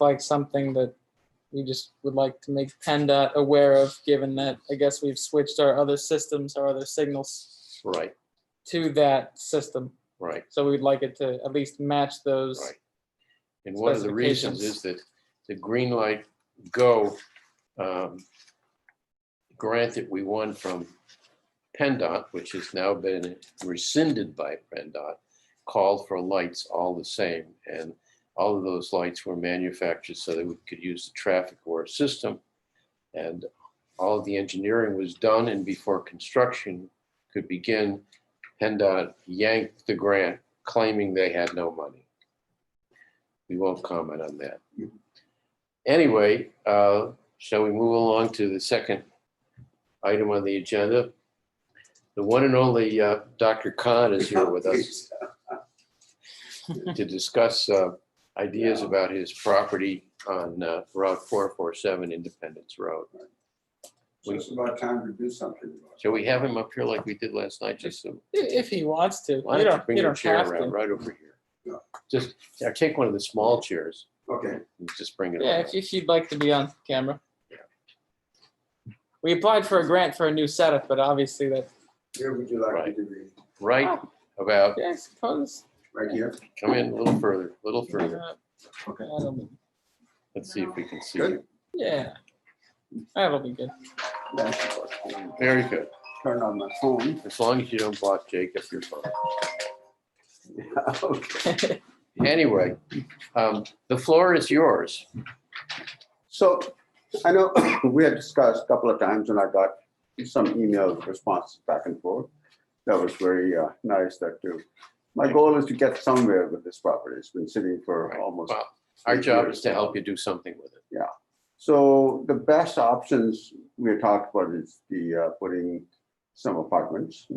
like something that we just would like to make PennDOT aware of, given that I guess we've switched our other systems, our other signals Right, to that system. right, So we'd like it to at least match those. right. And one of the reasons Specifications. is that the green light go um, grant that we won from PennDOT, which has now been rescinded by PennDOT, called for lights all the same. And all of those lights were manufactured so that we could use the traffic or system. And all of the engineering was done and before construction could begin, PennDOT yanked the grant claiming they had no money. We won't comment on that. Anyway, uh, shall we move along to the second item on the agenda? The one and only uh, Dr. Khan is here with us to discuss uh, ideas about his property on uh, Route 447 Independence Road. It's just about time to do something about Shall we have him up here like we did last night, just so? I- If he wants to. Why You don't you don't- bring you your don't chair have around to. right over Yeah. here? Just, or take one of the small chairs it. Okay, and just bring it Yeah, around. if- if you'd like to be on camera. We applied for a grant for a new setup, but obviously that, where would you like me Right. to be? Right Oh. about, yeah, I suppose. Right here? come in a little further, a little further. uh, Okay. that'll be- Let's see if we can see. Good. you. Yeah, that'll be good. Very good. Turn on my phone. As long as you don't block Jacob, you're fine. Okay. Anyway, um, the floor is yours. So I know we had discussed a couple of times and I got some email responses back and forth. That was very uh, nice that too. My goal is to get somewhere with this property. It's been sitting for Right. almost Well, Our job is to help you do something with it. So the best options we had talked about is the uh, putting some apartments.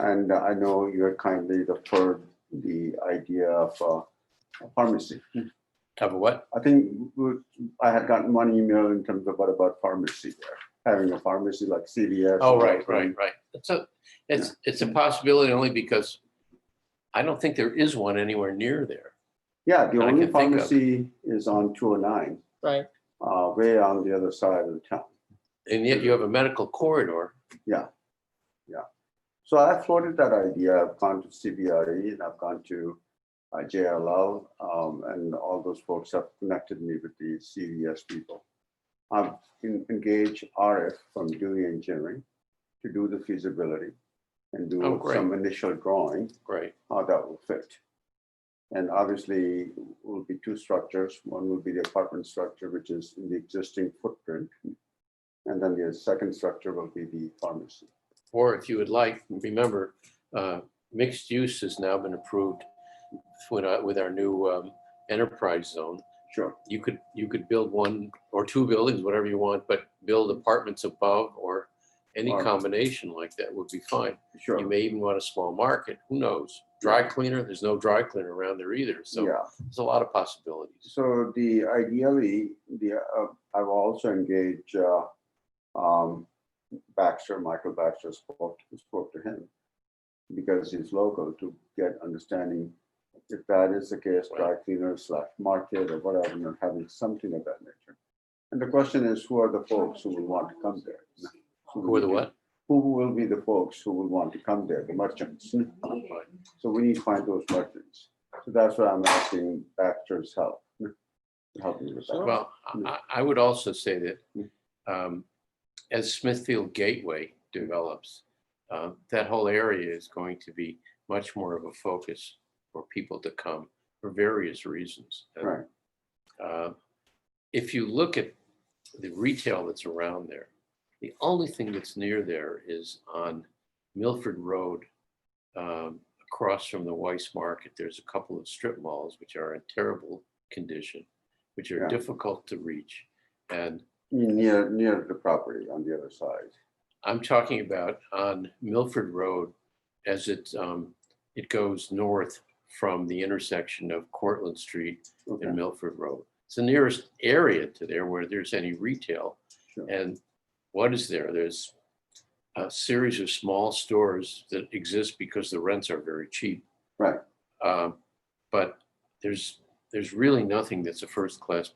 And I know you had kindly referred the idea of uh, a pharmacy. Of what? I think we- I had gotten one email in terms of what about pharmacy there, having a pharmacy like CVS. Oh, right, right, right. It's a, it's, it's a possibility only because I don't think there is one anywhere near there. Yeah, the I only can think of. pharmacy is on 209, Right, uh, way on the other side of the town. And yet you have a medical corridor. So I floated that idea. I've gone to CBRE E and I've gone to uh, JLL, um, and all those folks have connected me with the CVS people. I've en- engaged RF from Dewey Engineering to do the feasibility and Oh, do great. some initial drawing, Great. how that will fit. And obviously, will be two structures. One will be the apartment structure, which is in the existing footprint. And then the second structure will be the pharmacy. Or if you would like, remember, uh, mixed use has now been approved with our, with our new um, enterprise zone. Sure. you could, you could build one or two buildings, whatever you want, but build apartments above or any Or- combination like that would be fine. Sure. You may even want a small market, who knows? Dry cleaner, there's no dry cleaner around there either, so Yeah. there's a lot of possibilities. So the ideally, the, uh, I've also engaged, uh, um, Baxter, Michael Baxter spoke, spoke to him because he's local to get understanding if that is the case, dry cleaner slash market or whatever, and having something of that nature. And the question is, who are the folks who will want to come there? Who are the what? Who will be the folks who will want to come there, the merchants? So we need to find those merchants. So that's why I'm asking Baxter's help. to Help me with that. Well, I- I, I would also say that um, as Smithfield Gateway develops, uh, that whole area is going to be much more of a focus for people to come for various reasons. And, Right. uh, If you look at the retail that's around there, the only thing that's near there is on Milford Road. um, Across from the Weiss Market, there's a couple of strip malls which are in terrible condition, which are Yeah. difficult to reach. And Near, near the property on the other side. I'm talking about on Milford Road as it, um, it goes north from the intersection of Cortlandt Street Okay. in Milford Road. It's the nearest area to there where there's any retail. Sure. And what is there? There's a series of small stores that exist because the rents are very cheap. Right. Um, But there's, there's really nothing that's a first-class